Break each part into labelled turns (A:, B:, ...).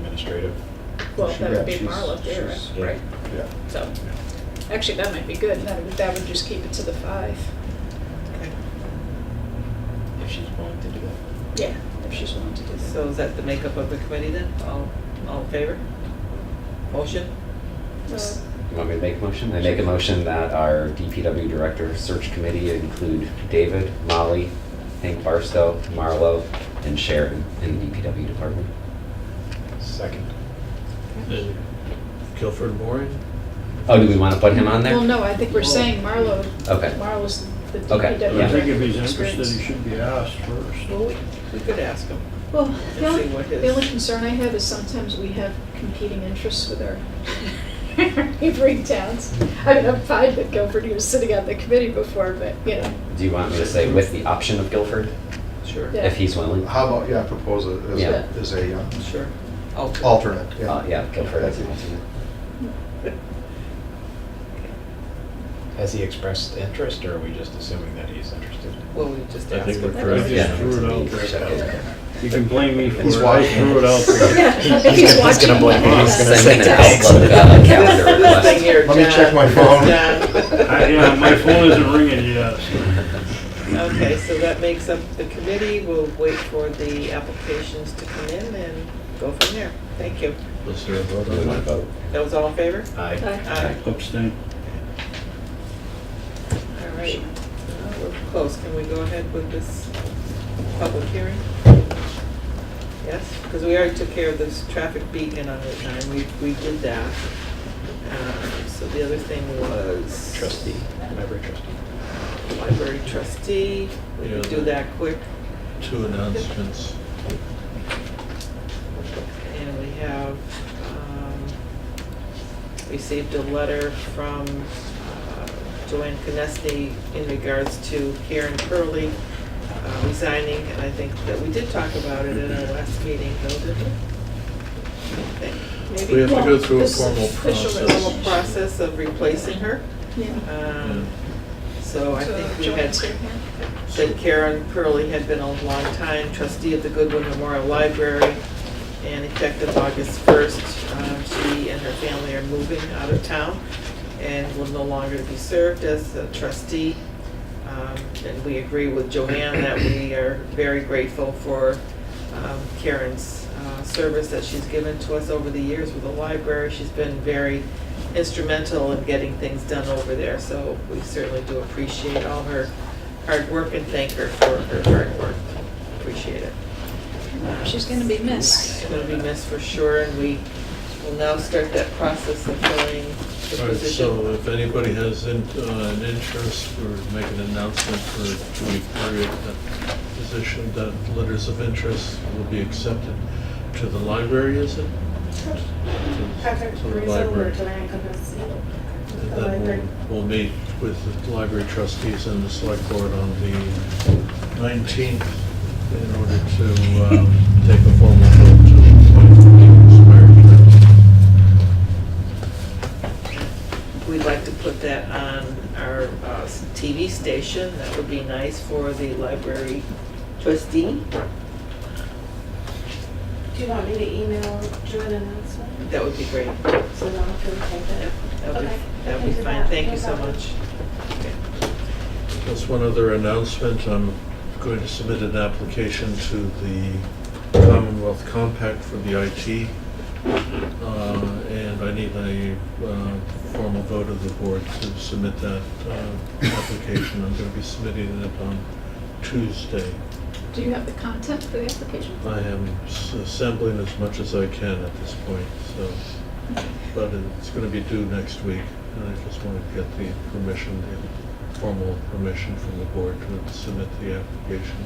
A: administrative.
B: Well,
C: She-
B: that
C: yeah,
B: would be
C: she's-
B: Marla there,
C: she's-
A: yeah.
B: right?
C: Yeah,
B: So, actually, that might be good. That would, that would just keep it to the five.
D: If she's willing to do it.
B: Yeah, if she's willing to do that.
D: So is that the makeup of the committee then? All, all in favor? Motion?
B: Well,
E: You want me to make a motion? I make a motion that our DPW Director Search Committee include David, Molly, Hank Barstow, Marlo, and Sharon in the DPW Department.
A: Second.
F: And Guilford Boring?
E: Oh, do we want to put him on there?
B: Well, no, I think we're saying Marlo,
E: Okay.
B: Marlo's the
E: Okay,
B: DPW
E: yeah.
C: I think if he's
B: director
C: interested, he
B: experience.
C: should be asked first.
D: Well, we, we could ask him.
B: Well, the
D: see
B: only,
D: what
B: the
D: his-
B: only concern I have is sometimes we have competing interests with our neighboring towns. I mean, I'm fine with Guilford, he was sitting on the committee before, but, you know,
E: Do you want me to say with the option of Guilford,
D: Sure.
B: Yeah.
E: if he's willing?
C: How about, yeah, propose it as
E: Yeah.
C: a, as a uh,
D: Sure. Alter.
C: alternate,
E: Uh,
C: yeah.
E: yeah, Guilford as an alternate.
A: Has he expressed interest, or are we just assuming that he's interested?
D: Well, we just
F: I
D: ask
F: think
D: him.
F: we're correct.
E: Yeah.
F: Just threw it out there.
E: Check it.
F: You can blame me for
C: He's
F: it, I
C: watching.
F: threw it out there.
B: He's watching. He's gonna
E: Send an Outlook uh, calendar
D: Nothing
E: request.
D: here,
C: Let me
D: John.
C: check my phone.
D: John.
F: I- Yeah, my phone isn't ringing yet.
D: Okay, so that makes up the committee. We'll wait for the applications to come in and go from there. Thank you.
F: Let's do a vote
E: Do we want
F: on
E: to vote?
D: That was all in favor?
A: Aye.
D: Aye.
F: that. Abstain.
D: All right. Uh, We're close. Can we go ahead with this public hearing? Yes, because we already took care of this traffic beacon on the time. We, we did that. Um, So the other thing was.
A: Trustee, member trustee.
D: Library trustee. We could do that quick.
F: Two announcements.
D: And we have, um, received a letter from uh, Joanne Canesti in regards to Karen Curley uh, resigning, and I think that we did talk about it in our last meeting, though, didn't we? I think,
F: We
D: Maybe
F: have to go through a
B: This is
F: formal
B: official
D: the whole
F: process.
D: process of replacing her.
B: yeah.
D: Um, So I
B: So
D: think we had
B: Joanne's here, yeah.
D: that Karen Pearlie had been a long-time trustee of the Goodwin Memorial Library, and effective August 1st, um, she and her family are moving out of town and will no longer be served as a trustee. Um, And we agree with Joanne that we are very grateful for um, Karen's uh, service that she's given to us over the years with the library. She's been very instrumental in getting things done over there, so we certainly do appreciate all her hard work and thank her for her hard work. Appreciate it.
B: She's gonna be missed.
D: It's going to be missed for sure, and we will now start that process of filling the
F: All right, so uh,
D: position.
F: if anybody has in- uh, an interest or make an announcement for Judy Perry at that uh, position, that letters of interest will be accepted to the library, is it?
G: Patrick
F: To the
G: Rizzo or
F: library.
G: Joanne Capucci.
F: And
G: The library.
F: then we'll, we'll meet with the library trustees and the select board on the 19th in order to um, take a formal vote to appoint Judy Perry.
D: We'd like to put that on our uh, TV station. That would be nice for the library trustee.
G: Do you want me to email Drew an announcement
D: That would be great.
G: so no one can take
D: Yep,
G: it?
D: That would
G: Okay,
D: be, that
G: I
D: would be
G: can do
D: fine.
G: that.
D: Thank
G: No
D: you so
G: problem.
D: much.
F: Just one other announcement, I'm going to submit an application to the Commonwealth Compact for the IT. uh, And I need a uh, formal vote of the board to submit that uh, application. I'm going to be submitting it on Tuesday.
B: Do you have the content for the application?
F: I am s- assembling as much as I can at this point, so, but it's going to be due next week. And I just want to get the permission, the formal permission from the board to submit the application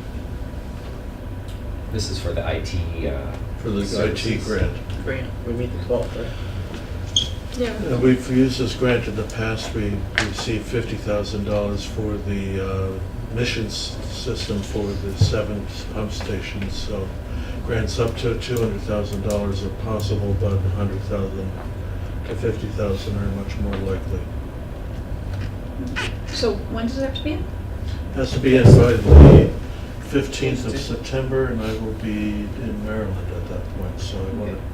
E: This is for the IT. uh,
F: for the IT
E: Services.
F: grant.
D: Grant.
H: We meet the twelfth, right?
B: Yeah.
F: Uh, We've used this grant in the past, we received fifty thousand dollars for the uh, missions system for the seven pump stations, so grants up to two hundred thousand dollars are possible, but a hundred thousand to fifty thousand are much more likely.
B: So when does it have to be in?
F: Has to be in by the fifteenth of September, and I will be in Maryland at that point, so I want to